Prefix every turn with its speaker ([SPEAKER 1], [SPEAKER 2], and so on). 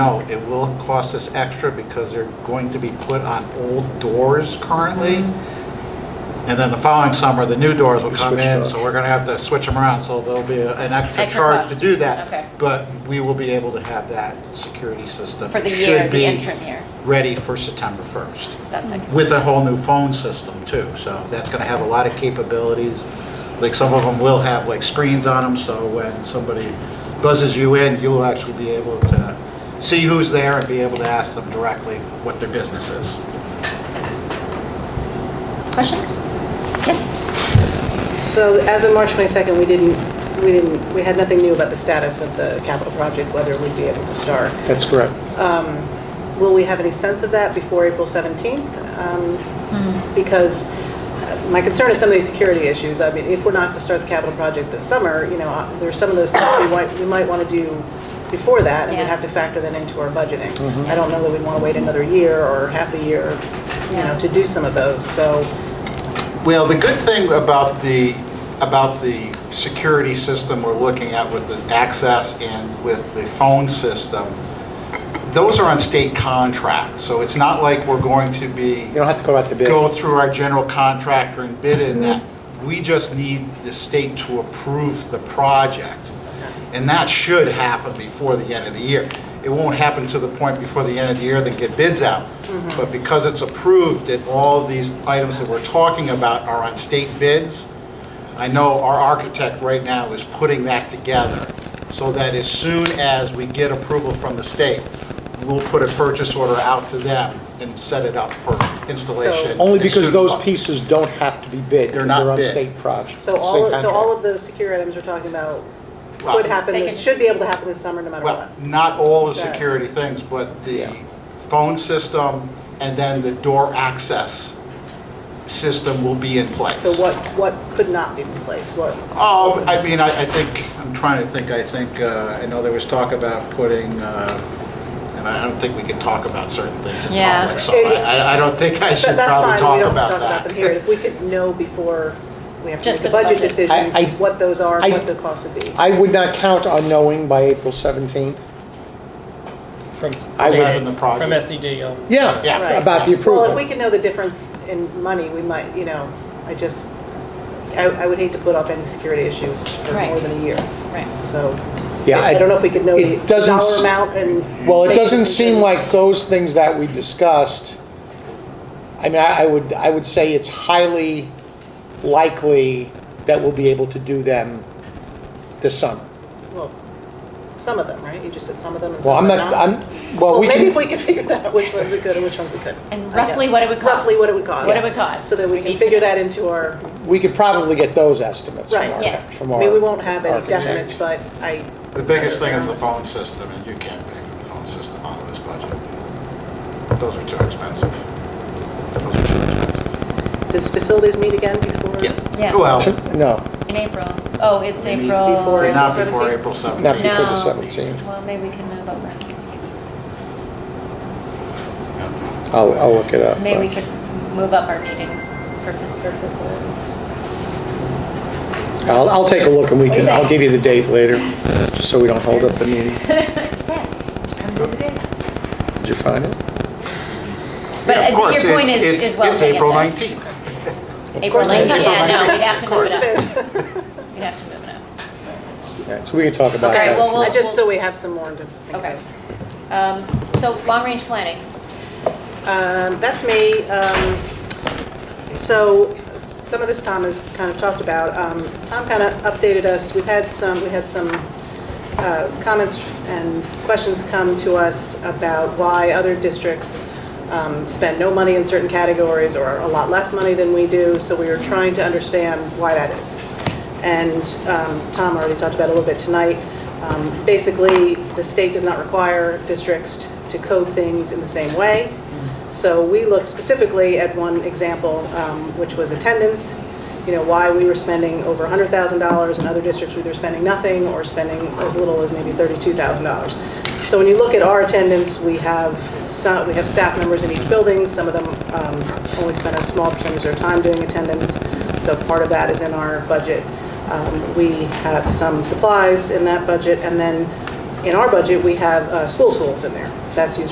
[SPEAKER 1] No, it will cost us extra because they're going to be put on old doors currently. And then the following summer, the new doors will come
[SPEAKER 2] switch
[SPEAKER 1] in,
[SPEAKER 2] doors.
[SPEAKER 1] so we're going to have to switch them around. So there'll be a- an extra
[SPEAKER 3] Extra
[SPEAKER 1] charge
[SPEAKER 3] cost.
[SPEAKER 1] to do that.
[SPEAKER 3] Okay.
[SPEAKER 1] But we will be able to have that security system.
[SPEAKER 3] For the
[SPEAKER 1] It
[SPEAKER 3] year,
[SPEAKER 1] should
[SPEAKER 3] the
[SPEAKER 1] be
[SPEAKER 3] interim year.
[SPEAKER 1] Ready for September 1st.
[SPEAKER 3] That's excellent.
[SPEAKER 1] with a whole new phone system too. So that's going to have a lot of capabilities. Like some of them will have like screens on them, so when somebody buzzes you in, you'll actually be able to see who's there and be able to ask them directly what their business is.
[SPEAKER 3] Questions? Yes?
[SPEAKER 4] So as of March 22nd, we didn't, we didn't, we had nothing new about the status of the capital project, whether we'd be able to start.
[SPEAKER 2] That's correct.
[SPEAKER 4] Will we have any sense of that before April 17th? Um, Because uh, my concern is some of these security issues. I mean, if we're not going to start the capital project this summer, you know, uh, there's some of those things we might, we might want to do before that, and we'd
[SPEAKER 3] Yeah.
[SPEAKER 4] have to factor that into our budgeting. I don't know that we'd want to wait another year or half a year, you know, to do some of those, so.
[SPEAKER 1] Well, the good thing about the, about the security system we're looking at with the access and with the phone system, those are on state contracts, so it's not like we're going to be
[SPEAKER 2] You don't have to go out to bid.
[SPEAKER 1] go through our general contractor and bid in that. We just need the state to approve the project. And that should happen before the end of the year. It won't happen to the point before the end of the year that get bids out. But because it's approved, that all these items that we're talking about are on state bids, I know our architect right now is putting that together, so that as soon as we get approval from the state, we'll put a purchase order out to them and set it up for installation.
[SPEAKER 2] Only
[SPEAKER 1] as soon
[SPEAKER 2] because
[SPEAKER 1] as
[SPEAKER 2] those
[SPEAKER 1] possible.
[SPEAKER 2] pieces don't have to be bid. 'cause
[SPEAKER 1] They're not
[SPEAKER 2] on
[SPEAKER 1] bid.
[SPEAKER 2] state projects.
[SPEAKER 4] So all, so all of those secure items we're talking about
[SPEAKER 1] Well-
[SPEAKER 4] could happen,
[SPEAKER 3] They
[SPEAKER 4] this-
[SPEAKER 3] could-
[SPEAKER 4] should be able to happen this summer, no matter what.
[SPEAKER 1] Well, not all the
[SPEAKER 4] Is that-
[SPEAKER 1] security things, but the
[SPEAKER 2] Yeah.
[SPEAKER 1] phone system and then the door access system will be in place.
[SPEAKER 4] So what, what could not be replaced, what?
[SPEAKER 1] Oh, I mean, I, I think, I'm trying to think, I think, uh, I know there was talk about putting, uh, and I don't think we can talk about certain things in
[SPEAKER 3] Yeah.
[SPEAKER 1] public, so I, I- I don't think I should
[SPEAKER 4] That- That's
[SPEAKER 1] probably
[SPEAKER 4] fine, we
[SPEAKER 1] talk
[SPEAKER 4] don't have to talk about
[SPEAKER 1] about
[SPEAKER 4] them here,
[SPEAKER 1] that.
[SPEAKER 4] if we could know before we have to
[SPEAKER 3] Just
[SPEAKER 4] make
[SPEAKER 3] for
[SPEAKER 4] a
[SPEAKER 3] the
[SPEAKER 4] budget
[SPEAKER 3] budget.
[SPEAKER 4] decision,
[SPEAKER 2] I- I-
[SPEAKER 4] what those are,
[SPEAKER 2] I-
[SPEAKER 4] what the cost would be.
[SPEAKER 2] I would not count on knowing by April 17th.
[SPEAKER 5] From
[SPEAKER 2] I
[SPEAKER 1] Having
[SPEAKER 2] would,
[SPEAKER 1] the
[SPEAKER 5] from
[SPEAKER 1] project.
[SPEAKER 5] SED, um,
[SPEAKER 2] yeah,
[SPEAKER 1] Yeah.
[SPEAKER 4] Right.
[SPEAKER 2] about the approval.
[SPEAKER 4] Well, if we could know the difference in money, we might, you know, I just, I, I would hate to put off any security issues for
[SPEAKER 3] Right.
[SPEAKER 4] more than a year,
[SPEAKER 3] Right.
[SPEAKER 4] so.
[SPEAKER 2] Yeah,
[SPEAKER 4] I
[SPEAKER 2] I-
[SPEAKER 4] don't know if we could know the
[SPEAKER 2] it doesn't
[SPEAKER 4] dollar
[SPEAKER 2] s-
[SPEAKER 4] amount and.
[SPEAKER 2] Well, it
[SPEAKER 4] make a
[SPEAKER 2] doesn't
[SPEAKER 4] decision.
[SPEAKER 2] seem like those things that we discussed, I mean, I I would, I would say it's highly likely that we'll be able to do them this summer.
[SPEAKER 4] Well, some of them, right? You just said some of them and
[SPEAKER 2] Well, I'm
[SPEAKER 4] some of them
[SPEAKER 2] not,
[SPEAKER 4] not.
[SPEAKER 2] I'm, well,
[SPEAKER 4] Well,
[SPEAKER 2] we
[SPEAKER 4] maybe if
[SPEAKER 2] can,
[SPEAKER 4] we could figure that out, which ones we could and which ones we couldn't.
[SPEAKER 3] And
[SPEAKER 4] I
[SPEAKER 3] roughly
[SPEAKER 4] guess.
[SPEAKER 3] what it would cost.
[SPEAKER 4] Roughly what it would cost.
[SPEAKER 3] What it would cost.
[SPEAKER 4] So that we
[SPEAKER 3] We
[SPEAKER 4] can
[SPEAKER 3] need
[SPEAKER 4] figure
[SPEAKER 3] to-
[SPEAKER 4] that into our,
[SPEAKER 2] we could probably get those estimates from
[SPEAKER 4] Right,
[SPEAKER 2] our,
[SPEAKER 3] yeah.
[SPEAKER 4] I
[SPEAKER 2] from our.
[SPEAKER 4] mean, we won't have any
[SPEAKER 2] architect.
[SPEAKER 4] definites, but I,
[SPEAKER 1] The biggest thing is the phone system, and you can't pay for the phone system out of this budget. Those are too expensive. Those are too expensive.
[SPEAKER 4] does facilities meet again before?
[SPEAKER 3] Yeah.
[SPEAKER 1] Well,
[SPEAKER 2] No,
[SPEAKER 3] In April. Oh, it's
[SPEAKER 1] Maybe
[SPEAKER 3] April.
[SPEAKER 4] before it-
[SPEAKER 1] not before
[SPEAKER 4] 17th?
[SPEAKER 1] April
[SPEAKER 2] not
[SPEAKER 1] 17th.
[SPEAKER 2] before the
[SPEAKER 3] No.
[SPEAKER 2] 17th.
[SPEAKER 3] Well, maybe we can move over.
[SPEAKER 2] I'll, I'll look it up. but-
[SPEAKER 3] Maybe we could move up our meeting for, for facilities.
[SPEAKER 2] I'll, I'll take a look and we can,
[SPEAKER 3] Okay.
[SPEAKER 2] I'll give you the date later, just so we don't hold up the meeting.
[SPEAKER 3] Depends, depends on the day.
[SPEAKER 2] Did you find it?
[SPEAKER 3] But
[SPEAKER 1] Yeah,
[SPEAKER 3] I
[SPEAKER 1] of course,
[SPEAKER 3] think your point
[SPEAKER 1] it's-
[SPEAKER 3] is,
[SPEAKER 1] it's-
[SPEAKER 3] is well
[SPEAKER 1] It's
[SPEAKER 3] taken.
[SPEAKER 1] April
[SPEAKER 3] though.
[SPEAKER 1] 19th.
[SPEAKER 3] April
[SPEAKER 4] course it is.
[SPEAKER 3] 19th, yeah, no, we'd have to move
[SPEAKER 4] Of course it
[SPEAKER 3] it
[SPEAKER 4] is.
[SPEAKER 3] up. We'd have to move it up.
[SPEAKER 2] Yeah, so we can talk about
[SPEAKER 3] Okay,
[SPEAKER 2] that.
[SPEAKER 3] well, we'll-
[SPEAKER 4] I just, so we have some more to.
[SPEAKER 3] Okay. Um, So, long-range planning,
[SPEAKER 4] Um, That's me. Um, So some of this Tom has kind of talked about. Um, Tom kind of updated us. We've had some, we had some uh, comments and questions come to us about why other districts um, spend no money in certain categories or a lot less money than we do. So we were trying to understand why that is. And um, Tom already talked about it a little bit tonight. Um, Basically, the state does not require districts to code things in the same way. So we looked specifically at one example, um, which was attendance. You know, why we were spending over $100,000 and other districts were either spending nothing or spending as little as maybe $32,000. So when you look at our attendance, we have, some- we have staff members in each building. Some of them um, only spend a small percentage of their time doing attendance. So part of that is in our budget. Um, We have some supplies in that budget, and then in our budget, we have uh, school tools in there. That's used